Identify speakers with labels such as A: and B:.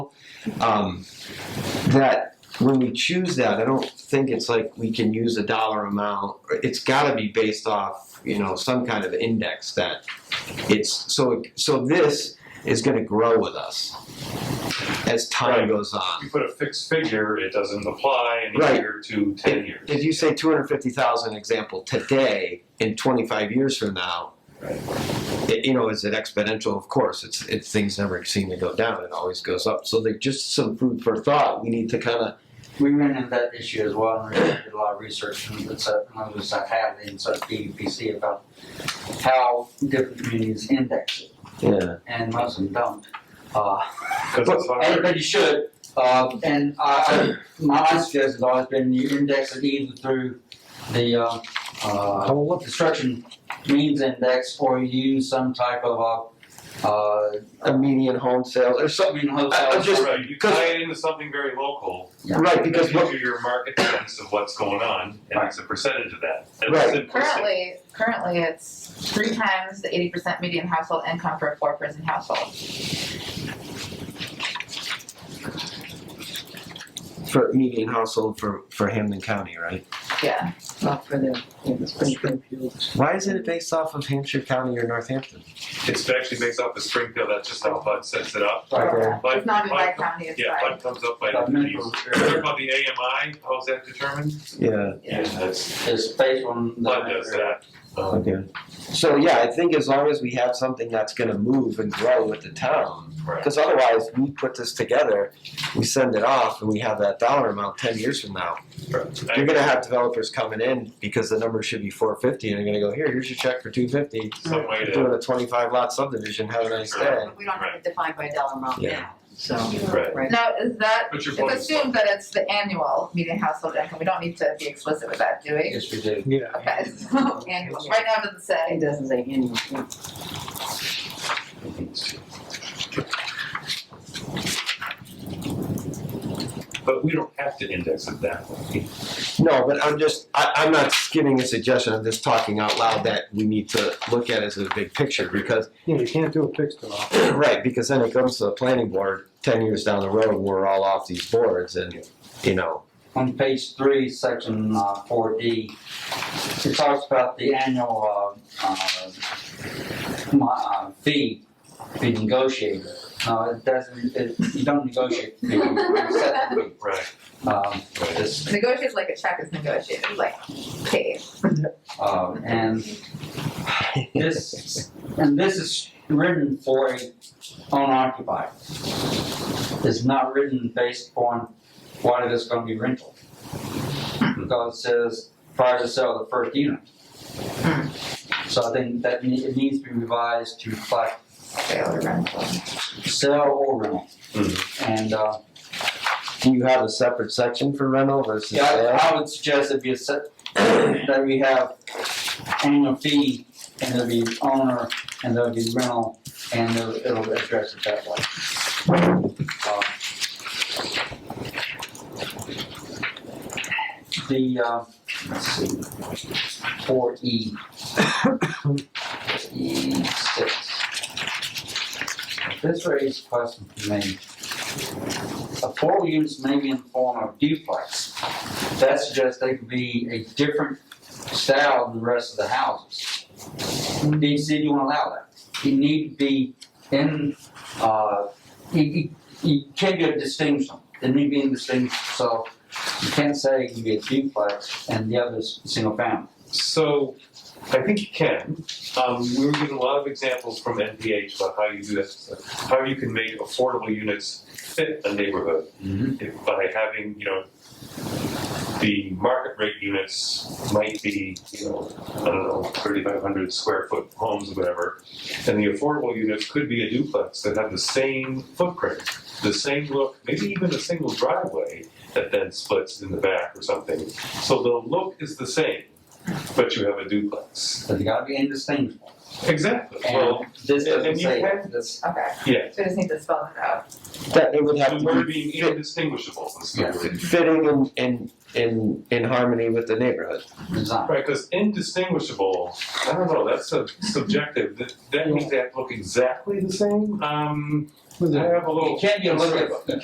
A: um, that when we choose that, I don't think it's like we can use a dollar amount. It's got to be based off, you know, some kind of index that it's so. So this is going to grow with us as time
B: Right.
A: goes
B: If you
A: on.
B: put a fixed figure, it doesn't apply in a
A: Right.
B: year to ten years.
A: If you say two hundred fifty thousand example today, in twenty five years from now. It, you know, is it exponential? Of course, it's it's things never seem to go down; it always goes up. So, they just some food for thought. We need to kind of
C: We ran into that issue as well, and we did a lot of research, and it's a, and it's a have inside DEPC about how different communities index it,
A: Yeah,
C: and most of them don't. Uh,
B: Because it's hard.
C: everybody should, uh, and I, I, my suggestion has always been you index it either through the, uh, uh, construction means index, or you use some type of, uh, uh,
A: a median home sale or something.
C: something
A: I- I'm
C: hotel.
A: just-
B: Right, you tie it into something very local,
A: Right,
B: and
A: because
B: then you
A: what,
B: do your market sense of what's going on, and
C: Right.
B: it's a percentage of that. And
A: Right.
B: it's simplistic.
D: Currently, currently it's three times the eighty percent median household income for a four-person household.
A: for median household for, for Hamden County, right?
D: Yeah,
E: Not for the, in the Springfield.
A: Why isn't it based off of Hampshire County or Northampton?
B: It's actually based off of Springfield, that's just how Bud sets it up.
A: Okay.
B: Bud-
D: it's not in my
B: Bud-
D: county, it's
B: Yeah,
D: by,
B: Bud comes up by,
C: About
B: you
C: minimum.
B: heard about the AMI, how's that determined?
A: Yeah,
B: Yeah, that's,
C: It's based on the.
B: Bud does that. Um,
A: okay. So, yeah, I think as long as we have something that's gonna move and grow with the town,
B: Right.
A: because otherwise, we put this together, we send it off, and we have that dollar amount ten years from now. You're gonna have developers coming in because the number should be four fifty, and they're gonna go, here, here's your check for two fifty.
B: Some way to,
A: Doing a twenty-five lot subdivision, have a nice day.
F: But we don't have it defined by dollar amount
A: Yeah.
F: now, so.
B: Right.
F: Right.
D: now, is that,
B: but your
D: it's
B: point is.
D: assumed that it's the annual median household income, we don't need to be explicit with that, do we?
C: Yes, we do.
E: Yeah.
D: Okay, so, annual, right now it doesn't
F: It
D: say,
F: doesn't say annual, yeah.
B: But we don't have to index it that way.
A: No, but I'm just, I, I'm not giving a suggestion, I'm just talking out loud that we need to look at as a big picture, because,
G: Yeah, you can't do a fixed amount.
A: right, because then it comes to the planning board, ten years down the road, we're all off these boards and, you know,
C: On page three, section uh, four D, it talks about the annual uh, uh, mo- uh, fee be negotiated. No, it doesn't, it- you don't negotiate the fee, you set the fee.
B: Right,
C: Um, this,
D: negotiate like a check is negotiated, like paid.
C: um, And this, and this is written for a unoccupied. It's not written based upon what it is gonna be rental. Because it says prior to sale of the first unit. So I think that ne- it needs to be revised to reflect
D: Sale or rental.
C: sale or rental. And, uh,
A: do you have a separate section for rental versus
C: yeah, I-
A: sale?
C: I would suggest it be a set, that we have annual fee and there'll be owner and there'll be rental and it'll, it'll address it that way. Um, The, uh, let's see, four E. E six. This raises a question for me. Affordable units may be in the form of duplex. That suggests they could be a different style than the rest of the houses. DC, do you want to allow that? You need to be in, uh, you, you, you can't get a distinction. They need to be in distinction, so you can't say it can be a duplex and the other's single family.
B: so I think you can. Um, we were given a lot of examples from NPH about how you do this, how you can make affordable units fit a neighborhood if- by having, you know, the market rate units might be, you know, I don't know, thirty-five hundred square foot homes or whatever. And the affordable units could be a duplex that have the same footprint, the same look, maybe even a single driveway that then splits in the back or something. So the look is the same, but you have a duplex.
C: So they gotta be indistinguishable.
B: Exactly, well,
C: And this
B: and-
C: doesn't
B: and you
C: say
B: can-
C: that. This-
D: Okay,
B: yeah,
D: so we just need to spell it out.
A: That it would have
B: the
A: to
B: word
A: be
B: being indistinguishable is the
C: Yes.
B: word.
A: fitting and in, in, in harmony with the neighborhood.
C: Design.
B: Right, because indistinguishable, I don't know, that's sub- subjective, that, that means they have to look exactly the same, um, I have a little.
C: It can't be a little,